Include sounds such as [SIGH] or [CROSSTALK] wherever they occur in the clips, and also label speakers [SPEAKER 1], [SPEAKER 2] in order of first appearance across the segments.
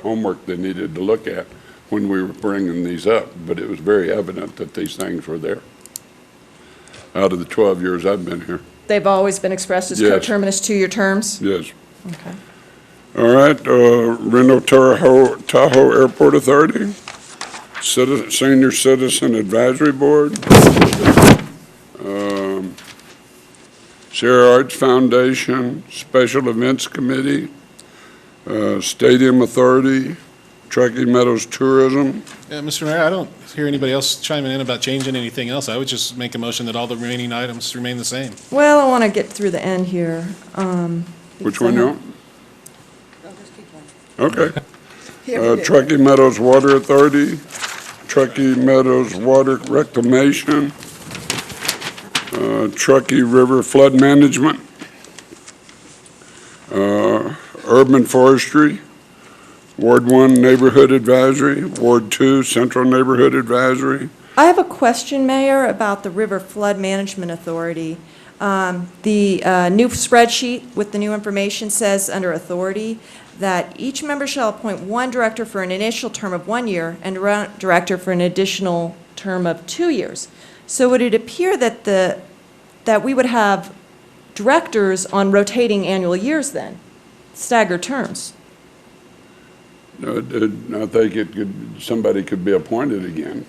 [SPEAKER 1] homework they needed to look at when we were bringing these up, but it was very evident that these things were there. Out of the 12 years I've been here,
[SPEAKER 2] They've always been expressed as
[SPEAKER 1] Yes.
[SPEAKER 2] coterminous two-year terms?
[SPEAKER 1] yes.
[SPEAKER 2] Okay.
[SPEAKER 1] All right, uh, Reno Tahoe, Tahoe Airport Authority, Citi- Senior Citizen Advisory Board, um, Sierra Arts Foundation, Special Events Committee, uh, Stadium Authority, Truckee Meadows Tourism.
[SPEAKER 3] Yeah, Mr. Mayor, I don't hear anybody else chiming in about changing anything else. I would just make a motion that all the remaining items remain the same.
[SPEAKER 2] Well, I want to get through the end here. um,
[SPEAKER 1] Which
[SPEAKER 2] because I
[SPEAKER 1] one you
[SPEAKER 2] don't-
[SPEAKER 1] want? Okay. Uh, Truckee Meadows Water Authority, Truckee Meadows Water Reclamation, uh, Truckee River Flood Management, uh, Urban Forestry, Ward One Neighborhood Advisory, Ward Two Central Neighborhood Advisory.
[SPEAKER 2] I have a question, Mayor, about the River Flood Management Authority. Um, The uh, new spreadsheet with the new information says, under authority, that each member shall appoint one director for an initial term of one year and a director for an additional term of two years. So would it appear that the, that we would have directors on rotating annual years then, staggered terms?
[SPEAKER 1] Uh, uh, I think it could, somebody could be appointed again.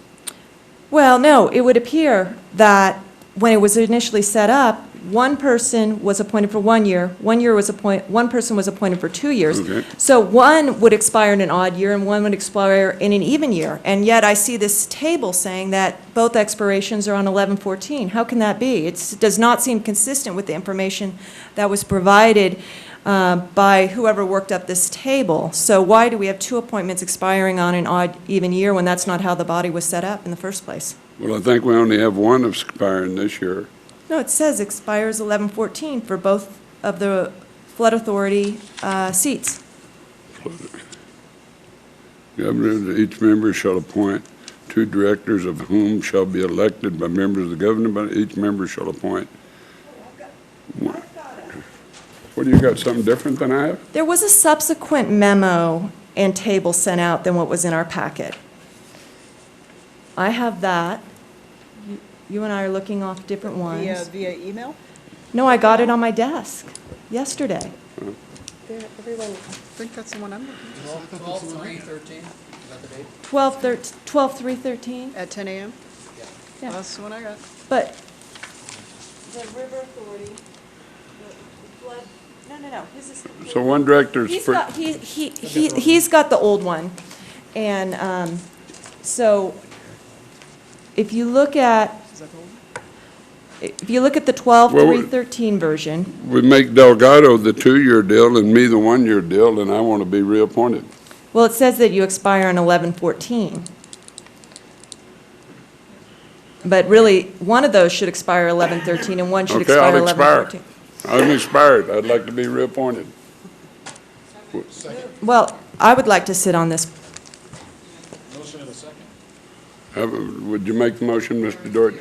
[SPEAKER 2] Well, no, it would appear that when it was initially set up, one person was appointed for one year, one year was appoint, one person was appointed for two years.
[SPEAKER 1] Okay.
[SPEAKER 2] So one would expire in an odd year and one would expire in an even year. And yet I see this table saying that both expirations are on 11/14. How can that be? It does not seem consistent with the information that was provided uh, by whoever worked up this table. So why do we have two appointments expiring on an odd even year when that's not how the body was set up in the first place?
[SPEAKER 1] Well, I think we only have one expiring this year.
[SPEAKER 2] No, it says expires 11/14 for both of the flood authority uh, seats.
[SPEAKER 1] Governor, each member shall appoint two directors of whom shall be elected by members of the governor, but each member shall appoint. one. What, do you got something different than I have?
[SPEAKER 2] There was a subsequent memo and table sent out than what was in our packet. I have that. You- You and I are looking off different
[SPEAKER 4] Via,
[SPEAKER 2] ones.
[SPEAKER 4] via email?
[SPEAKER 2] No, I got it on my desk yesterday.
[SPEAKER 4] Everyone, I think that's the one I'm looking
[SPEAKER 5] 12, 3, 13, is that the date?
[SPEAKER 2] 12, 13, 12, 3, 13?
[SPEAKER 4] at. At 10 a.m.?
[SPEAKER 2] Yeah.
[SPEAKER 4] That's the one I got.
[SPEAKER 2] But. The River Authority, the flood, no, no, no, his is.
[SPEAKER 1] So one director's
[SPEAKER 2] He's
[SPEAKER 1] for,
[SPEAKER 2] got, he, he, he- he's got the old one. And, um, so if you look at,
[SPEAKER 4] Is that the one?
[SPEAKER 2] if you look at the twelve,
[SPEAKER 1] Well,
[SPEAKER 2] three, thirteen version,
[SPEAKER 1] we make Delgado the two-year deal and me the one-year deal, and I want to be reappointed.
[SPEAKER 2] well, it says that you expire on eleven, fourteen. But really, one of those should expire eleven, thirteen, and one should
[SPEAKER 1] Okay,
[SPEAKER 2] expire
[SPEAKER 1] I'll
[SPEAKER 2] eleven,
[SPEAKER 1] expire.
[SPEAKER 2] fourteen.
[SPEAKER 1] I'm expired. I'd like to be reappointed.
[SPEAKER 2] Well, I would like to sit on this.
[SPEAKER 3] Motion in a second.
[SPEAKER 1] Have a- Would you make the motion, Mr. Doherty?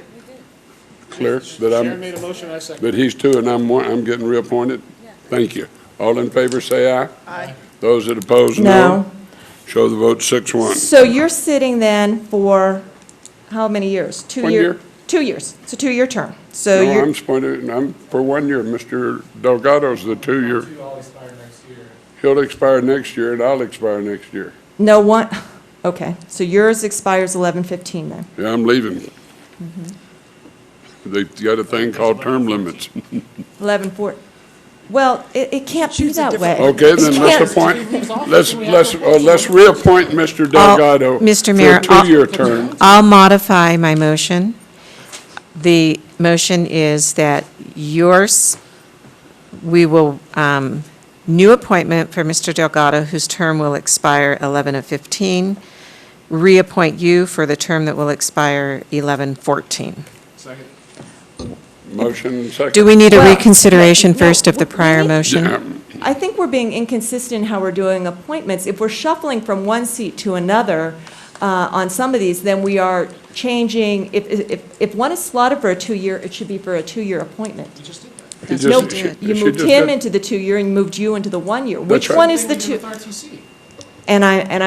[SPEAKER 1] Clear that
[SPEAKER 3] Sharon
[SPEAKER 1] I'm,
[SPEAKER 3] made a motion, I second.
[SPEAKER 1] that he's two and I'm one, I'm getting reappointed? Thank you. All in favor, say aye.
[SPEAKER 4] Aye.
[SPEAKER 1] Those that oppose, no. Show the vote six one.
[SPEAKER 2] So you're sitting then for how many years? Two
[SPEAKER 1] One
[SPEAKER 2] year-
[SPEAKER 1] year.
[SPEAKER 2] Two years. It's a two-year term. So
[SPEAKER 1] No, I'm
[SPEAKER 2] you're,
[SPEAKER 1] appointed, I'm for one year. Mr. Delgado's the two-year.
[SPEAKER 5] Two all expire next year.
[SPEAKER 1] He'll expire next year and I'll expire next year.
[SPEAKER 2] no one, [LAUGHS] okay, so yours expires 11/15 then.
[SPEAKER 1] Yeah, I'm leaving.
[SPEAKER 6] Mm-hmm.
[SPEAKER 1] They've got a thing called term limits.
[SPEAKER 2] 11/4, well, it, it can't be that way.
[SPEAKER 1] Okay,
[SPEAKER 2] It
[SPEAKER 1] then
[SPEAKER 2] can't-
[SPEAKER 1] let's appoint, let's, let's, uh, let's reappoint Mr.
[SPEAKER 6] I'll-
[SPEAKER 1] Delgado.
[SPEAKER 6] Mr. Mayor,
[SPEAKER 1] For a
[SPEAKER 6] I'll-
[SPEAKER 1] two-year term.
[SPEAKER 6] I'll modify my motion. The motion is that yours, we will, um, new appointment for Mr. Delgado, whose term will expire 11 of 15, reappoint you for the term that will expire 11 14.
[SPEAKER 3] Second.
[SPEAKER 1] Motion second.
[SPEAKER 6] Do we need a
[SPEAKER 2] Well,
[SPEAKER 6] reconsideration
[SPEAKER 2] no,
[SPEAKER 6] first of the
[SPEAKER 2] we-
[SPEAKER 6] prior
[SPEAKER 2] we-
[SPEAKER 6] motion?
[SPEAKER 1] Yeah,
[SPEAKER 2] I think we're being inconsistent in how we're doing appointments. If we're shuffling from one seat to another uh, on some of these, then we are changing, if, if, if one is slotted for a two-year, it should be for a two-year appointment.
[SPEAKER 1] he just-
[SPEAKER 2] No,
[SPEAKER 1] she-
[SPEAKER 2] you
[SPEAKER 1] she
[SPEAKER 2] moved
[SPEAKER 1] just
[SPEAKER 2] him
[SPEAKER 1] did-
[SPEAKER 2] into the two-year and moved you into the one-year.
[SPEAKER 1] That's
[SPEAKER 2] Which
[SPEAKER 1] right.
[SPEAKER 2] one is the two?
[SPEAKER 5] RTC.
[SPEAKER 2] And I, and